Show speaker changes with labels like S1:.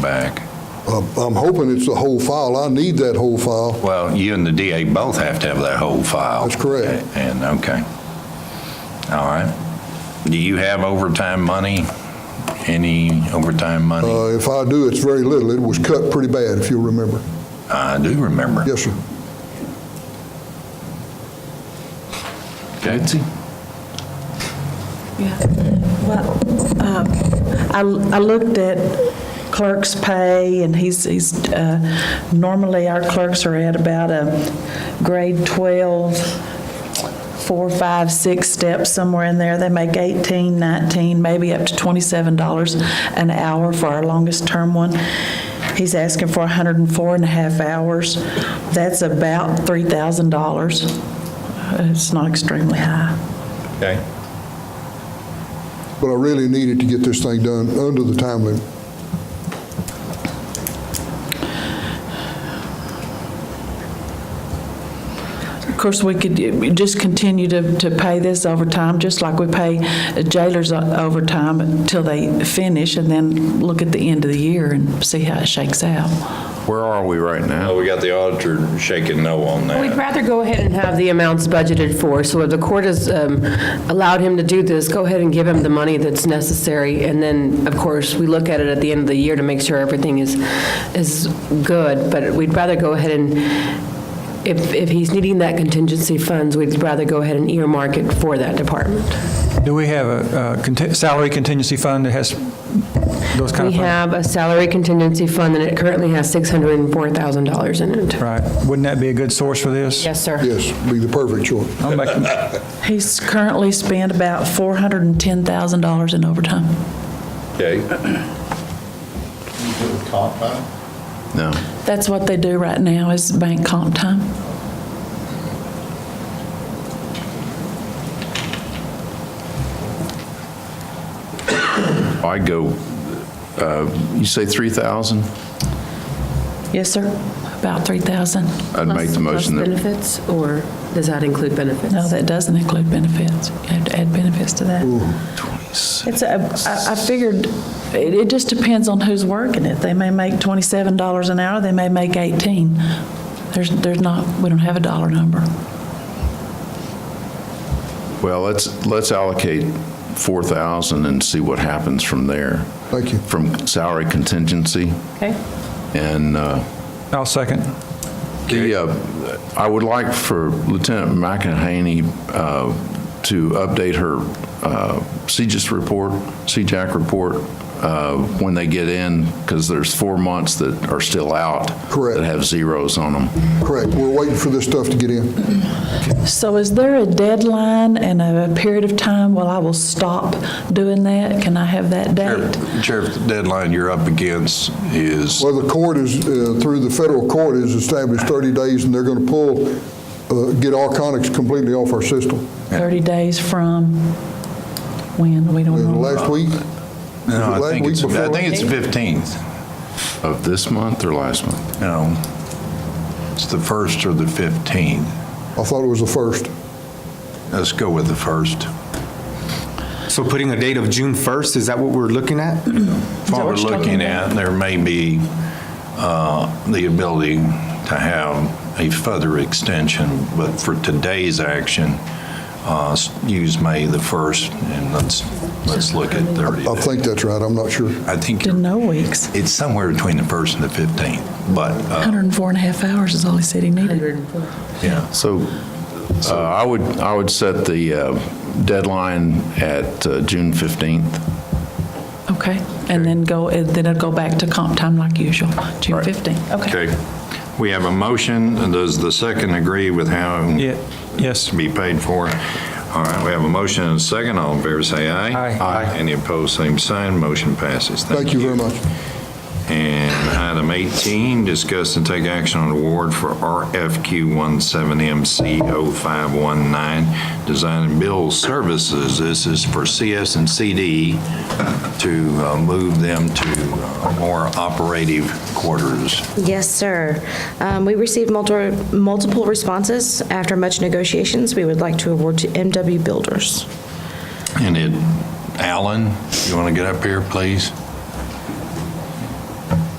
S1: back.
S2: I'm I'm hoping it's the whole file. I need that whole file.
S1: Well, you and the DA both have to have that whole file.
S2: That's correct.
S1: And, okay. All right. Do you have overtime money? Any overtime money?
S2: Uh, If I do, it's very little. It was cut pretty bad, if you'll remember.
S1: I do remember.
S2: Yes, sir.
S1: Betsy?
S3: Well, um, I I looked at clerk's pay, and he's, he's, uh, normally our clerks are at about a grade 12, four, five, six steps, somewhere in there. They make 18, 19, maybe up to $27 an hour for our longest-term one. He's asking for 104 and a half hours. That's about $3,000. It's not extremely high.
S1: Okay.
S2: But I really needed to get this thing done under the time limit.
S3: Of course, we could uh, just continue to, to pay this overtime, just like we pay jailers o- overtime until they finish, and then look at the end of the year and see how it shakes out.
S1: Where are we right now? We got the auditor shaking no on
S4: We'd
S1: that.
S4: rather go ahead and have the amounts budgeted for, so if the court has um, allowed him to do this, go ahead and give him the money that's necessary, and then, of course, we look at it at the end of the year to make sure everything is, is good, but we'd rather go ahead and, if, if he's needing that contingency funds, we'd rather go ahead and earmark it for that department.
S5: Do we have a uh, conti- salary contingency fund that has those kind
S4: We
S5: of funds?
S4: have a salary contingency fund, and it currently has $604,000 in it.
S5: Right. Wouldn't that be a good source for this?
S4: Yes, sir.
S2: Yes, be the perfect choice.
S5: I'll make-
S3: He's currently spent about $410,000 in overtime.
S1: Okay. No.
S3: That's what they do right now, is bank comp time.
S6: I go, uh, you say 3,000?
S3: Yes, sir, about 3,000.
S6: I'd make the
S4: Plus
S6: motion that,
S4: benefits, or does that include benefits?
S3: No, that doesn't include benefits. You have to add benefits to that. It's, a- I I figured, it it just depends on who's working it. They may make $27 an hour, they may make 18. There's, there's not, we don't have a dollar number.
S6: well, let's, let's allocate 4,000 and see what happens from there,
S2: Thank you.
S6: from salary contingency.
S3: Okay.
S6: And uh,
S5: I'll second.
S6: the, uh, I would like for Lieutenant McEnhaney uh, to update her uh, CJIS report, CJAC report, uh, when they get in, because there's four months that are still out.
S2: Correct.
S6: That have zeros on them.
S2: Correct. We're waiting for this stuff to get in.
S3: So is there a deadline and a period of time Well, I will stop doing that? Can I have that date?
S1: Sheriff, the deadline you're up against is,
S2: Well, the court is, uh, through the federal court, is established 30 days, and they're going to pull, uh, get Arconics completely off our system.
S3: 30 days from when? We don't
S2: Uh,
S3: know.
S2: Last week?
S1: no, I
S2: Last
S1: think
S2: week
S1: it's, I
S2: before
S1: think it's
S2: last?
S1: 15th.
S6: Of this month or last month?
S1: No. It's the first or the 15th.
S2: I thought it was the first.
S1: Let's go with the first.
S7: So putting a date of June 1st, is that what we're looking at?
S1: what we're
S3: what you're
S1: looking
S3: talking about?
S1: at, there may be uh, the ability to have a further extension, but for today's action, uh, s- use May the 1st, and let's, let's look at 30
S2: I
S1: days.
S2: think that's right. I'm not sure.
S1: I think
S3: To no weeks.
S1: it's somewhere between the 1st and the 15th, but, uh,
S3: 104 and a half hours is all he said he needed.
S4: 104.
S1: yeah.
S6: So uh, I would, I would set the uh, deadline at uh, June 15th.
S3: Okay, and then go, and then it'll go back to comp time like usual, June 15. Okay.
S1: Okay. We have a motion. Does the second agree with how
S5: Yeah, yes.
S1: to be paid for. All right, we have a motion and a second. All in favor, say aye.
S5: Aye. Aye.
S1: Any opposed, same sign. Motion passes.
S2: Thank you very much.
S1: And item 18, discuss and take action on award for RFQ 17MC0519, Design and Build Services. This is for CS and CD to uh, move them to uh, more operative quarters.
S8: Yes, sir. Um, We received multi- multiple responses. After much negotiations, we would like to award to MW Builders.
S1: And it, Alan, you want to get up here, please?